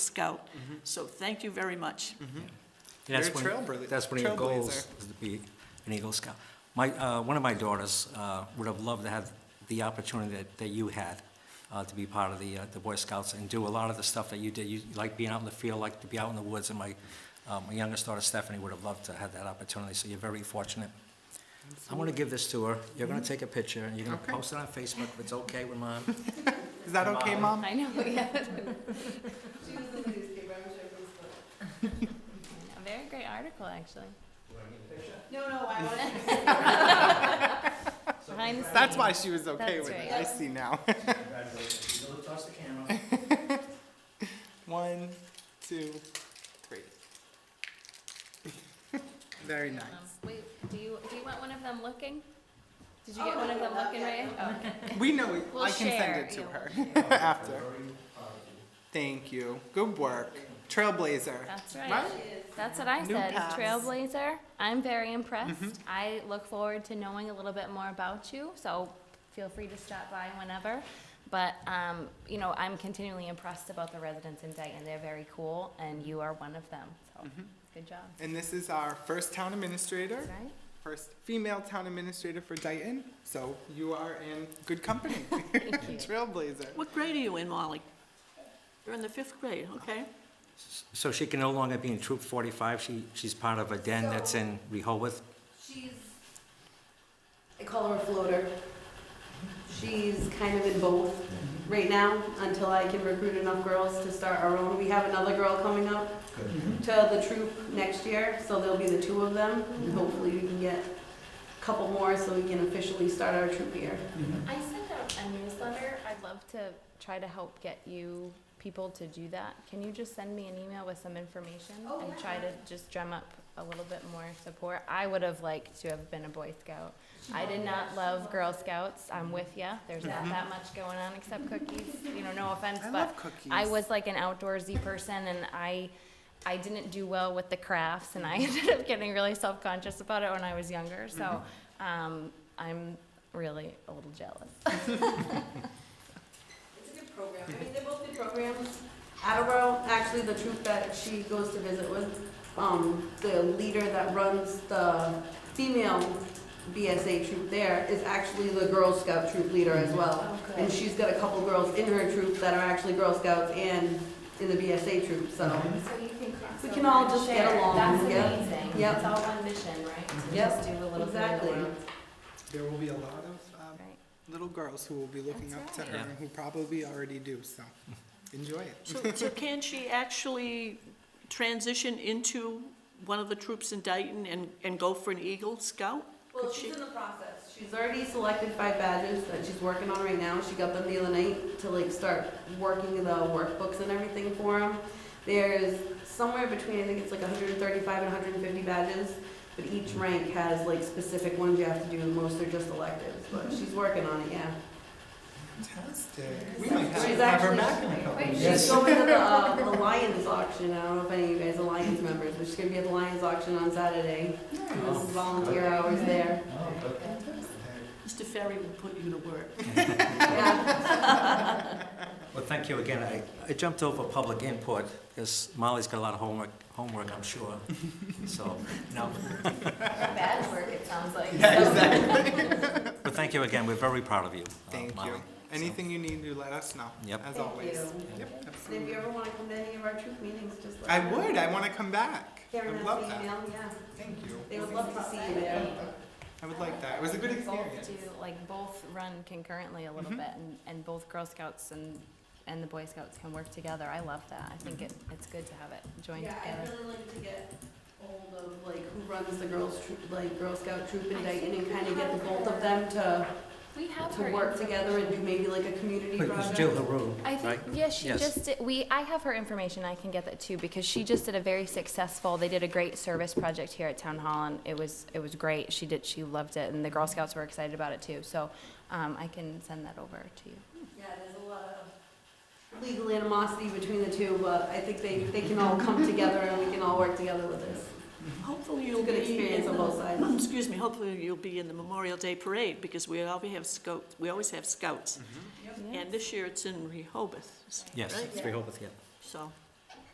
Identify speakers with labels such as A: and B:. A: scout. So thank you very much.
B: And that's
C: You're a
B: one-
C: trailbla-
B: That's one of your goals,
C: trailblazer.
B: is to be an Eagle Scout. My, uh, one of my daughters uh, would have loved to have the opportunity that, that you had, uh, to be part of the, uh, the Boy Scouts and do a lot of the stuff that you did. You like being out in the field, like to be out in the woods, and my, uh, my youngest daughter Stephanie would have loved to have that opportunity, so you're very fortunate. I want to give this to her. You're going to take a picture, and you're going to
C: Okay.
B: post it on Facebook if it's okay with mom.
C: Is that okay, Mom?
D: I know, yeah. A very great article, actually.
E: No, no, I want to.
D: Behind the scenes.
C: That's why she was okay
D: That's
C: with
D: right.
C: it. I see now.
B: Congratulations. You know, toss the camera.
C: One, two, three. Very nice.
D: Um, Wait, do you, do you want one of them looking? Did you get one of them looking, Ray? Oh, okay.
C: We know it.
D: We'll
C: I can send
D: share,
C: it to
D: yeah,
C: her after. Thank you. Good work. Trailblazer.
D: That's
C: Right?
D: right. That's what I
C: New Mm-hmm.
D: said,
C: paths.
D: trailblazer. I'm very impressed. I look forward to knowing a little bit more about you, so feel free to stop by whenever. But, um, you know, I'm continually impressed about the residents in Dayton. They're very cool, and you are one of them, so,
C: Mm-hmm.
D: good job.
C: And this is our first town administrator,
D: Right?
C: first female town administrator for Dayton. So you are in good company. Trailblazer.
A: What grade are you in, Molly? You're in the fifth grade, okay?
B: So she can no longer be in Troop 45, she, she's part of a den that's in Rehoboth?
E: She's, I call her a floater. She's kind of in both right now until I can recruit enough girls to start our own. We have another girl coming up to the troop next year, so there'll be the two of them. And hopefully we can get a couple more so we can officially start our troop here.
D: I sent out a newsletter. I'd love to try to help get you people to do that. Can you just send me an email with some information?
E: Oh,
D: And
E: yeah.
D: try to just drum up a little bit more support. I would have liked to have been a Boy Scout. I did not love Girl Scouts. I'm with ya. There's not that much going on except cookies, you know, no offense,
C: I
D: but.
C: love cookies.
D: I was like an outdoorsy person and I, I didn't do well with the crafts and I ended up getting really self-conscious about it when I was younger, so, um, I'm really a little jealous.
E: It's a good program. I mean, they're both good programs. Attleboro, actually, the troop that she goes to visit with, um, the leader that runs the female BSA troop there is actually the Girl Scout troop leader as well.
D: Oh, good.
E: And she's got a couple girls in her troop that are actually Girl Scouts and in the BSA troop, so.
D: So you can cross
E: We can all
D: over and
E: just get
D: share.
E: along,
D: That's
E: yep,
D: amazing.
E: yep.
D: It's all one mission, right? To
E: Yep,
D: just do a little bit of the
E: exactly.
D: world.
C: There will be a lot of um,
D: Right.
C: little girls who will be looking up
D: That's
C: to her
B: right.
C: and who probably already do, so enjoy it.
A: So, so can she actually transition into one of the troops in Dayton and, and go for an Eagle Scout?
E: Well,
A: Could
E: she's
A: she-
E: in the process. She's already selected five badges that she's working on right now. She got them the other night to like start working the workbooks and everything for them. There's somewhere between, I think it's like 135 and 150 badges, but each rank has like specific ones you have to do, and most are just electives, but she's working on it, yeah.
C: Fantastic. We might have
E: She's
C: to have her
E: actually-
C: back in a couple of
E: She's
C: years.
E: going to the, uh, the Lions auction, I don't know if any of you guys are Lions members, but she's gonna be at the Lions auction on Saturday. And This is volunteer hours there,
A: Mr. Ferry will put you to work.
E: yeah.
B: Well, thank you again. I, I jumped over public input, because Molly's got a lot of homework, homework, I'm sure. So, no,
D: Bad work, it sounds like.
B: but thank you again, we're very proud of you, uh,
C: Thank
B: Molly.
C: you. Anything you need, you let us know,
B: Yep.
C: as
E: Thank
C: always.
E: you.
C: Yep,
E: And if
C: absolutely.
E: you ever want to come to any of our troop meetings, just let
C: I
E: me know.
C: would, I want to come back. I
E: Karen
C: would
E: has
C: love
E: the
C: that.
E: email, yeah.
C: Thank you.
E: They would love to see you there.
C: I would like that. It was a good experience.
D: Both do, like, both run concurrently a little bit, and, and both Girl Scouts and, and the Boy Scouts can work together. I love that. I think it, it's good to have it joined
E: Yeah, I'd
D: together.
E: really like to get hold of, like, who runs the girls' troop, like, Girl Scout troop in Dayton and kind of get the both of them to,
D: We have
E: to
D: her
E: work together and do
D: information.
E: maybe like a community
B: But it's Jill
E: project.
B: Haru,
D: I
B: right?
D: think, yeah, she
B: Yes.
D: just did, we, I have her information, I can get that too, because she just did a very successful, they did a great service project here at Town Hall, and it was, it was great, she did, she loved it, and the Girl Scouts were excited about it too, so, um, I can send that over to you.
E: Yeah, there's a lot of legal animosity between the two, but I think they, they can all come together and we can all work together with this.
A: Hopefully
E: It's
A: you'll
E: a
A: be. Mm,
E: good experience on both sides.
A: Excuse me, hopefully you'll be in the Memorial Day Parade, because we always have scouts, we always have scouts.
D: Yeah.
A: And this year it's in Rehoboth,
B: Yes,
A: right?
B: it's Rehoboth, yeah.
A: So,